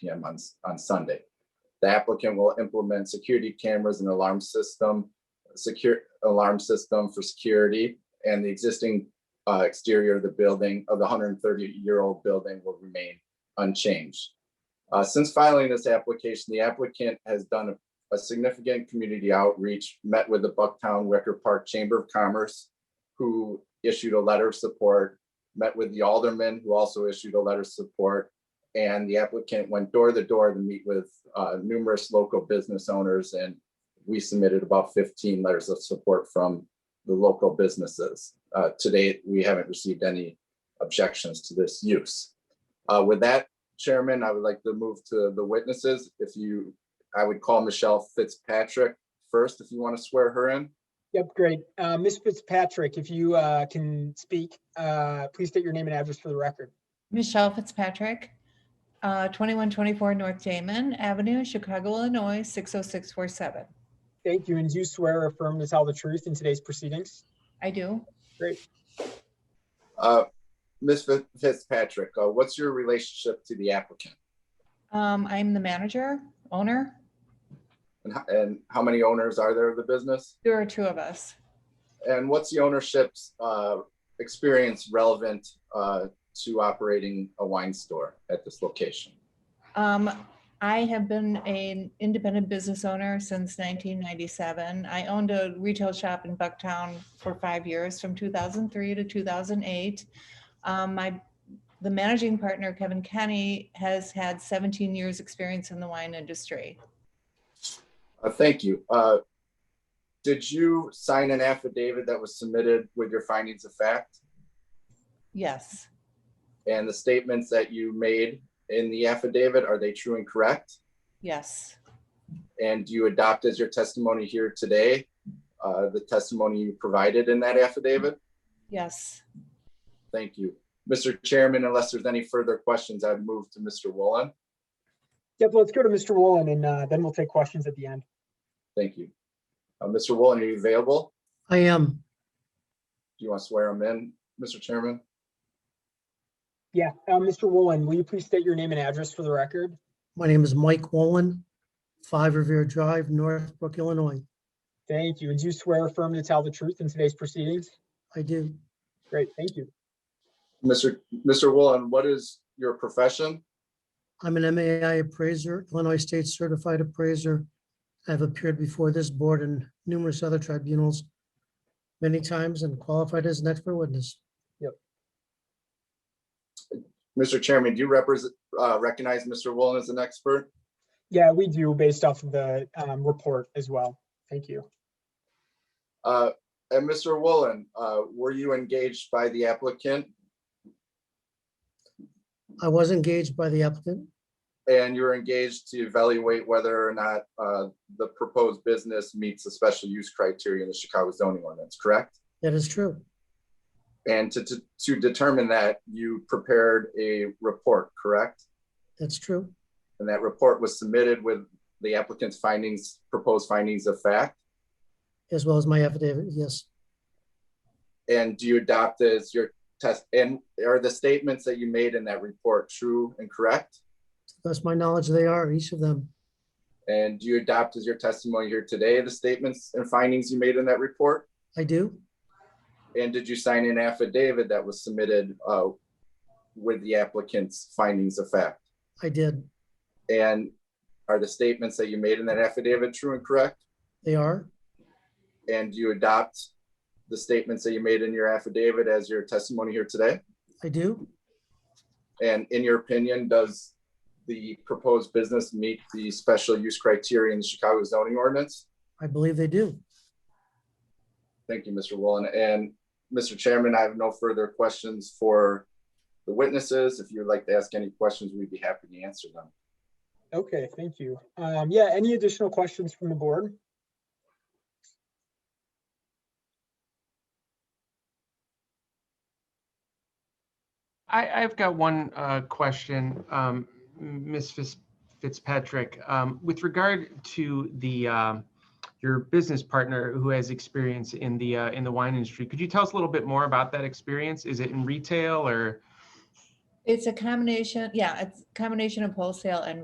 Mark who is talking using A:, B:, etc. A: PM on, s- on Sunday. The applicant will implement security cameras and alarm system, secure, alarm system for security, and the existing uh, exterior of the building, of the 130-year-old building will remain unchanged. Uh, Since filing this application, the applicant has done a a significant community outreach, met with the Bucktown Wicker Park Chamber of Commerce, who issued a letter of support, met with the alderman, who also issued a letter of support. And the applicant went door to door to meet with uh, numerous local business owners, and we submitted about 15 letters of support from the local businesses. Uh, To date, we haven't received any objections to this use. Uh, With that, Chairman, I would like to move to the witnesses. If you I would call Michelle Fitzpatrick first, if you want to swear her in.
B: Yep, great. Uh, Ms. Fitzpatrick, if you uh, can speak, uh, please state your name and address for the record.
C: Michelle Fitzpatrick, uh, 2124 North Damon Avenue, Chicago, Illinois, 60647.
B: Thank you. And do you swear or affirm to tell the truth in today's proceedings?
C: I do.
A: Uh, Ms. Fi- Fitzpatrick, uh, what's your relationship to the applicant?
C: Um, I'm the manager, owner.
A: And ho- And how many owners are there of the business?
C: There are two of us.
A: And what's the ownership's uh, experience relevant uh, to operating a wine store at this location?
C: Um, I have been an independent business owner since 1997. I owned a retail shop in Bucktown for five years, from 2003 to 2008. Um, my, the managing partner, Kevin Kenny, has had 17 years' experience in the wine industry.
A: Uh, Thank you. Uh, Did you sign an affidavit that was submitted with your findings of fact
C: Yes,
A: and the statements that you made in the affidavit? Are they true and correct?
C: yes.
A: and you adopt as your testimony here today uh, the testimony you provided in that affidavit?
C: Yes,
A: Thank you. Mr. Chairman, unless there's any further questions, I've moved to Mr. Woolen.
B: Yep, let's go to Mr. Woolen and uh, then we'll take questions at the end.
A: Thank you. Uh, Mr. Woolen, are you available?
D: I am.
A: Do you want to swear him in, Mr. Chairman?
B: Yeah, uh, Mr. Woolen, will you please state your name and address for the record?
D: My name is Mike Wolin, Five Revere Drive, Northbrook, Illinois.
B: Thank you. And do you swear or affirm to tell the truth in today's proceedings?
D: I do.
B: Great, thank you.
A: Mr. Mr. Woolen, what is your profession?
D: I'm an MAI appraiser, Illinois State Certified Appraiser. I've appeared before this board and numerous other tribunals many times and qualified as an expert witness.
A: Mr. Chairman, do you represent, uh, recognize Mr. Woolen as an expert?
B: Yeah, we do based off of the um, report as well. Thank you.
A: Uh, And Mr. Woolen, uh, were you engaged by the applicant
D: I was engaged by the applicant.
A: and you're engaged to evaluate whether or not uh, the proposed business meets the special use criteria in the Chicago zoning ordinance, correct?
D: That is true.
A: And to, to, to determine that, you prepared a report, correct?
D: That's true.
A: And that report was submitted with the applicant's findings, proposed findings of fact?
D: As well as my affidavit. Yes,
A: And do you adopt as your test, and are the statements that you made in that report true and correct?
D: to the best of my knowledge, they are, each of them.
A: And do you adopt as your testimony here today, the statements and findings you made in that report?
D: I do.
A: And did you sign an affidavit that was submitted uh, with the applicant's findings of fact?
D: I did.
A: And are the statements that you made in that affidavit true and correct?
D: They are.
A: And do you adopt the statements that you made in your affidavit as your testimony here today?
D: I do.
A: And in your opinion, does the proposed business meet the special use criteria in the Chicago zoning ordinance?
D: I believe they do.
A: Thank you, Mr. Woolen. And Mr. Chairman, I have no further questions for the witnesses. If you'd like to ask any questions, we'd be happy to answer them.
B: Okay, thank you. Um, yeah, any additional questions from the board?
E: I, I've got one uh, question, um, Ms. Fitz- Fitzpatrick, um, with regard to the um, your business partner who has experience in the uh, in the wine industry. Could you tell us a little bit more about that experience? Is it in retail or?
C: it's a combination, yeah, it's a combination of wholesale and